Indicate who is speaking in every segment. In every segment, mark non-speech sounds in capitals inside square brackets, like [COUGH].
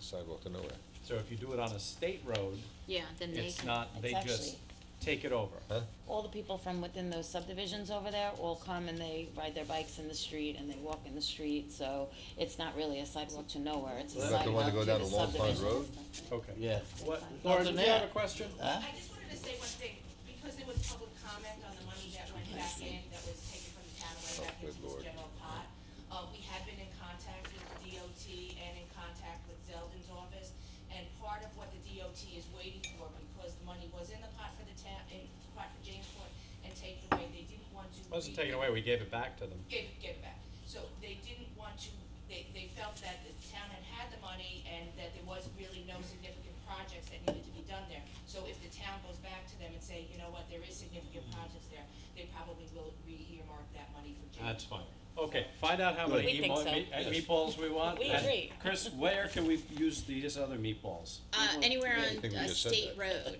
Speaker 1: sidewalk to nowhere,
Speaker 2: So if you do it on a state road,
Speaker 3: Yeah, then they
Speaker 2: it's
Speaker 3: can.
Speaker 2: not, they
Speaker 4: It's
Speaker 2: just
Speaker 4: actually-
Speaker 2: take it over.
Speaker 1: huh?
Speaker 4: All the people from within those subdivisions over there all come and they ride their bikes in the street and they walk in the street, so it's not really a sidewalk to nowhere, it's a
Speaker 1: Is that
Speaker 4: sidewalk
Speaker 1: the
Speaker 4: to
Speaker 1: one to go down
Speaker 4: the
Speaker 1: to Long Pond
Speaker 4: subdivision.
Speaker 1: Road?
Speaker 2: Okay.
Speaker 5: Yeah.
Speaker 2: What,
Speaker 4: That's
Speaker 2: Lauren,
Speaker 5: fine.
Speaker 2: did you have a
Speaker 5: Yeah.
Speaker 2: question?
Speaker 5: Huh?
Speaker 6: I just wanted to say one thing, because there was public comment on the money that went back in, that was taken from the town and went back
Speaker 1: Oh, good
Speaker 6: into this
Speaker 1: Lord.
Speaker 6: general pot. Uh, we had been in contact with the DOT and in contact with Zeldin's office, and part of what the DOT is waiting for, because the money was in the pot for the town, in the pot for Jamesport, and taken away, they didn't want to.
Speaker 2: Wasn't
Speaker 6: re-
Speaker 2: taken away, we gave it back to them.
Speaker 6: Give, give it back. So they didn't want to, they, they felt that the town had had the money and that there was really no significant projects that needed to be done there. So if the town goes back to them and say, you know what, there is significant projects there, they probably will re-earmark that money for Jim.
Speaker 2: That's fine. Okay, find out how many
Speaker 4: We think
Speaker 2: meatball,
Speaker 4: so.
Speaker 2: meat- uh, meatballs we want.
Speaker 4: We
Speaker 2: and
Speaker 4: agree.
Speaker 2: Chris, where can we use these other meatballs?
Speaker 3: Uh, anywhere
Speaker 1: I
Speaker 3: on
Speaker 1: think we
Speaker 3: a
Speaker 1: just said
Speaker 3: state
Speaker 1: that.
Speaker 3: road,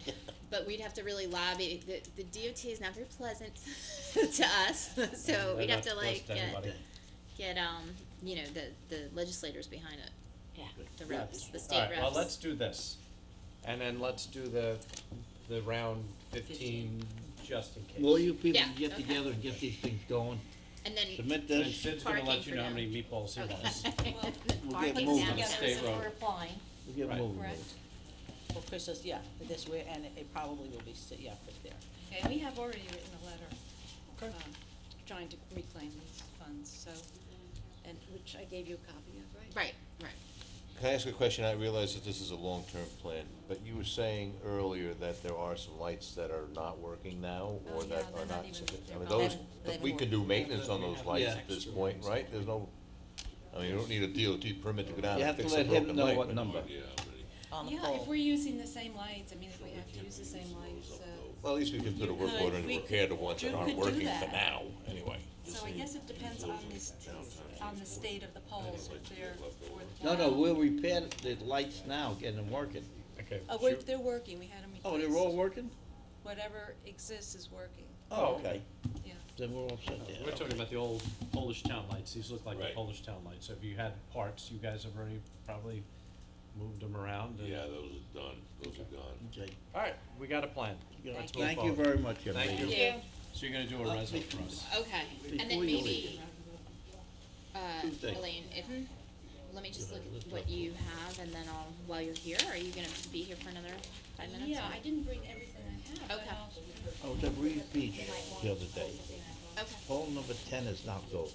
Speaker 3: but we'd have to really lobby, the, the DOT is not very pleasant [LAUGHS] to us, [LAUGHS] so
Speaker 2: They're
Speaker 3: we'd have
Speaker 2: not
Speaker 3: to like
Speaker 2: close to
Speaker 3: get,
Speaker 2: anybody.
Speaker 3: get, um, you know, the, the legislators behind it,
Speaker 4: Yeah.
Speaker 3: the reps, the state
Speaker 2: Alright,
Speaker 3: reps.
Speaker 2: well, let's do this. And then let's do the, the round fifteen, just in case.
Speaker 5: Will you people
Speaker 3: Yeah,
Speaker 5: get
Speaker 3: okay.
Speaker 5: together and get these things going?
Speaker 3: And then, [LAUGHS]
Speaker 5: Submit
Speaker 2: And
Speaker 5: this,
Speaker 2: Sid's gonna
Speaker 3: Parking
Speaker 2: let you
Speaker 3: for
Speaker 2: know how
Speaker 3: them.
Speaker 2: many meatballs he wants.
Speaker 3: okay.
Speaker 5: we'll get
Speaker 3: Parking
Speaker 5: moving.
Speaker 3: down.
Speaker 2: State road.
Speaker 7: applying.
Speaker 5: We'll get
Speaker 2: Right.
Speaker 5: moving.
Speaker 3: Correct.
Speaker 7: Well, Chris says, yeah, this way, and it- it probably will be, sti- yeah, put there.
Speaker 8: And we have already written a letter,
Speaker 2: Okay.
Speaker 8: um, trying to reclaim these funds, so, and, which I gave you a copy of, right?
Speaker 3: right, right.
Speaker 9: Can I ask a question? I realize that this is a long-term plan, but you were saying earlier that there are some lights that are not working now
Speaker 8: Oh,
Speaker 9: or
Speaker 8: yeah,
Speaker 9: that
Speaker 8: they're
Speaker 9: are
Speaker 8: not
Speaker 9: not
Speaker 8: even-
Speaker 9: sufficient.
Speaker 8: they're
Speaker 9: I mean,
Speaker 8: not-
Speaker 9: those,
Speaker 8: They
Speaker 9: but
Speaker 8: haven't-
Speaker 9: we
Speaker 8: they
Speaker 9: can do maintenance on
Speaker 2: We
Speaker 9: those
Speaker 2: have-
Speaker 9: lights
Speaker 5: yeah.
Speaker 9: at this point, right? There's no, I mean, you don't need a DOT permit to go down
Speaker 5: You
Speaker 9: and
Speaker 5: have to
Speaker 9: fix a
Speaker 5: let him
Speaker 9: broken
Speaker 5: know
Speaker 9: light,
Speaker 5: what
Speaker 9: but-
Speaker 5: number.
Speaker 7: On the
Speaker 8: Yeah, if
Speaker 7: pole.
Speaker 8: we're using the same lights, I mean, if we have to use the same lights, uh,
Speaker 9: Well, at least we can put a work
Speaker 8: could-
Speaker 9: order and
Speaker 8: we
Speaker 9: repair the
Speaker 8: could-
Speaker 9: ones that
Speaker 8: you
Speaker 9: aren't
Speaker 8: could do
Speaker 9: working for
Speaker 8: that.
Speaker 9: now, anyway.
Speaker 8: so I guess it depends on this, on the state of the poles, if they're
Speaker 5: No, no,
Speaker 8: worthwhile.
Speaker 5: we'll repair the lights now, get them working.
Speaker 2: Okay.
Speaker 8: Oh, wait,
Speaker 2: shoot.
Speaker 8: they're working, we had them replaced.
Speaker 5: Oh, they're all working?
Speaker 8: Whatever exists is working,
Speaker 5: Oh, okay.
Speaker 8: yeah.
Speaker 5: Then we're all set there.
Speaker 2: We're talking about the old Polish town lights, these look like the
Speaker 9: Right.
Speaker 2: Polish town lights, so if you had parts, you guys have already probably moved them around and.
Speaker 9: those are done, those are gone.
Speaker 5: Okay.
Speaker 2: Alright, we got a plan, Let's move
Speaker 5: Thank you
Speaker 2: forward.
Speaker 5: very much, everybody.
Speaker 2: Thank you.
Speaker 3: Yeah,
Speaker 2: So you're gonna do a
Speaker 5: Uh,
Speaker 2: resume for
Speaker 5: please.
Speaker 2: us.
Speaker 3: okay, and then
Speaker 5: Before you leave.
Speaker 3: maybe, uh,
Speaker 5: Tuesday.
Speaker 3: Elaine, if, let me just look at what you have and then I'll, while you're here, are you gonna be here for another five minutes?
Speaker 7: Yeah, I didn't bring everything I have,
Speaker 3: Okay.
Speaker 7: but I'll.
Speaker 5: I was at Reed Beach the other day.
Speaker 3: Okay.
Speaker 5: Pole number ten is knocked over.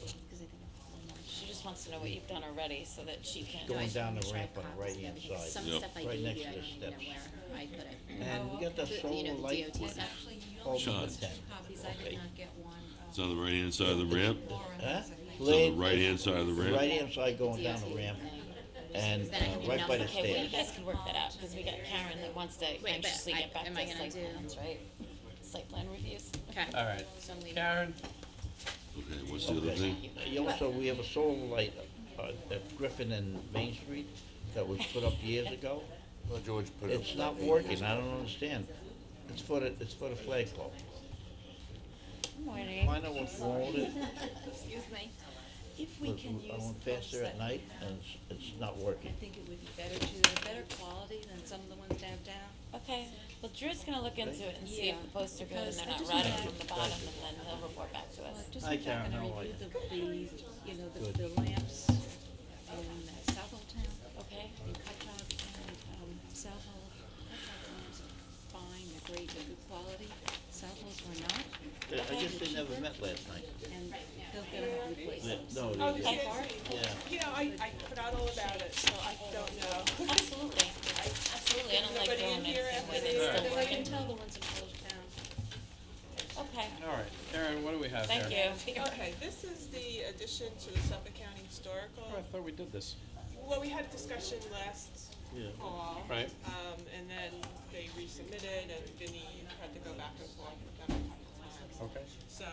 Speaker 4: She just wants to know what you've done already, so that she can.
Speaker 5: Going
Speaker 3: Always
Speaker 5: down
Speaker 3: make
Speaker 5: the
Speaker 3: sure I
Speaker 5: ramp on
Speaker 3: have
Speaker 5: the
Speaker 3: copies of
Speaker 5: right-hand
Speaker 3: everything.
Speaker 5: side.
Speaker 3: Some
Speaker 5: Yep.
Speaker 3: stuff I
Speaker 5: Right
Speaker 3: gave you, I
Speaker 5: next
Speaker 3: don't
Speaker 5: to the
Speaker 3: even know
Speaker 5: steps.
Speaker 3: where I put it.
Speaker 5: And we got
Speaker 8: Oh,
Speaker 5: that
Speaker 3: okay.
Speaker 5: solar
Speaker 3: You know, the
Speaker 5: light
Speaker 3: DOT
Speaker 5: one,
Speaker 3: stuff.
Speaker 8: Actually, you
Speaker 5: pole
Speaker 8: only
Speaker 5: number
Speaker 8: got
Speaker 5: ten.
Speaker 8: two copies, I
Speaker 5: Okay.
Speaker 8: did not get one,
Speaker 10: It's
Speaker 8: uh,
Speaker 10: on the right-hand side of the ramp,
Speaker 8: Lauren
Speaker 5: Huh?
Speaker 8: has, I think.
Speaker 10: it's on
Speaker 5: Leg-
Speaker 10: the right-hand side of the ramp.
Speaker 5: Right hand side going down
Speaker 3: DOT
Speaker 5: the ramp
Speaker 3: thing.
Speaker 5: and
Speaker 3: Then I can
Speaker 5: uh,
Speaker 3: do
Speaker 5: right by the
Speaker 3: nothing.
Speaker 4: Okay, well, you
Speaker 5: stairs.
Speaker 4: guys can work that out, cause we got Karen that wants to
Speaker 3: but
Speaker 4: anxiously
Speaker 3: I-
Speaker 4: get back to
Speaker 3: am I
Speaker 4: site
Speaker 3: gonna
Speaker 4: plans,
Speaker 3: do-
Speaker 4: right? Site plan reviews.
Speaker 3: Okay.
Speaker 2: Alright,
Speaker 3: So I'm leaving.
Speaker 2: Karen,
Speaker 10: Okay, what's the other thing?
Speaker 5: You Also, we have a solar light uh, at Griffin and Main Street that was put up years ago.
Speaker 9: Well, George put it.
Speaker 5: It's not working, I don't understand. It's for the, it's for the flagpole.
Speaker 7: Morning.
Speaker 5: Find out what's wrong with it.
Speaker 3: Excuse me.
Speaker 8: If we
Speaker 5: Look,
Speaker 8: can
Speaker 5: I
Speaker 8: use
Speaker 5: went
Speaker 8: the
Speaker 5: past there at
Speaker 8: posts that we
Speaker 5: night
Speaker 8: have,
Speaker 5: and it's, it's not working.
Speaker 8: I think it would be better to, they're better quality than some of the ones downtown.
Speaker 4: [LAUGHS] Okay, well Drew's gonna look into it and see if the posts are good and
Speaker 8: Because
Speaker 4: they're
Speaker 8: I
Speaker 4: not
Speaker 8: just wanna
Speaker 4: rotting
Speaker 8: add-
Speaker 4: from the bottom, and then he'll report back to us.
Speaker 8: Well, just
Speaker 5: Hi,
Speaker 8: if I'm
Speaker 5: Karen, how
Speaker 8: gonna
Speaker 5: are
Speaker 8: review the, the, you know,
Speaker 5: Good.
Speaker 8: the, the lamps in uh, South Old Town.
Speaker 4: Okay.
Speaker 8: Hutchog and, um, South Old, Hutchog lamps are fine, they're great, they're good quality. South Old's were not,
Speaker 5: I I guess they never met last night.
Speaker 8: and they'll get them replaced.
Speaker 5: No,
Speaker 7: Oh,
Speaker 5: they didn't.
Speaker 7: did you
Speaker 4: Okay.
Speaker 5: Yeah.
Speaker 7: You know, I, I forgot all about it, so I don't know.
Speaker 4: Absolutely, absolutely, I don't like
Speaker 7: Nobody
Speaker 4: doing
Speaker 7: in here
Speaker 4: anything
Speaker 7: after
Speaker 4: with
Speaker 7: these?
Speaker 4: it,
Speaker 7: They're
Speaker 4: still
Speaker 8: I
Speaker 7: like
Speaker 8: can
Speaker 4: working.
Speaker 8: tell the ones in Old Town.
Speaker 4: Okay,
Speaker 2: alright, Karen, what do we have here?
Speaker 4: thank you.
Speaker 7: Okay, this is the addition to the Suffolk County Historical.
Speaker 2: Oh, I thought we did this,
Speaker 7: Well, we had a discussion last
Speaker 5: Yeah.
Speaker 7: fall.
Speaker 2: Right.
Speaker 7: Um, and then they resubmitted and Vinnie had to go back and forth with them a couple times.
Speaker 2: okay?
Speaker 7: So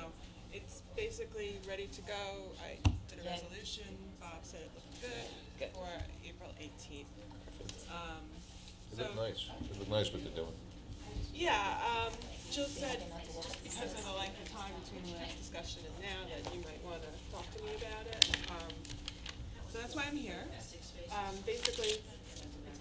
Speaker 7: it's basically ready to go. I did a
Speaker 4: Yay.
Speaker 7: resolution, Bob said it looked good
Speaker 4: Good.
Speaker 7: for April eighteenth. Um,
Speaker 9: It
Speaker 7: so,
Speaker 9: looked nice, it looked nice what they're doing.
Speaker 7: yeah, um, Jill said, just because of the length of time between the last discussion and now, that you might wanna talk to me about it. Um, so that's why I'm here. Um, basically,